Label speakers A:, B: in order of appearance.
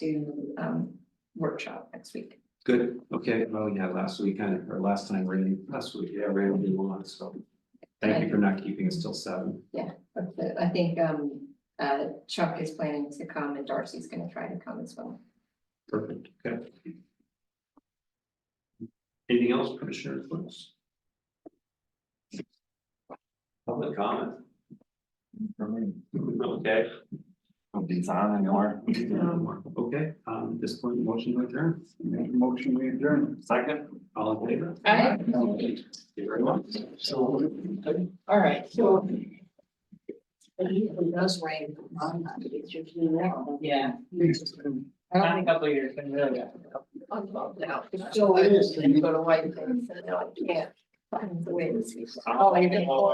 A: do um workshop next week.
B: Good, okay, oh yeah, last week kind of, or last time, really, last week, yeah, really did one, so. Thank you for not keeping us till seven.
A: But the- I think um uh Chuck is planning to come and Darcy's gonna try to come as well.
B: Perfect, okay. Anything else, Commissioner Flips? Public comment? Okay.
C: Don't be on anymore.
B: Okay, um, at this point, motion to adjourn.
C: Motion we adjourn. Second.
B: all in favor?
A: Aye.
B: Thank you very much.
D: All right, so. It usually does rain. on that, but It's usually now. Yeah.
A: I don't think
D: couple of years, been really.
A: I'm involved now.
D: So it is.
A: Go to White Plains and now I can't find the way to see. Oh, I didn't.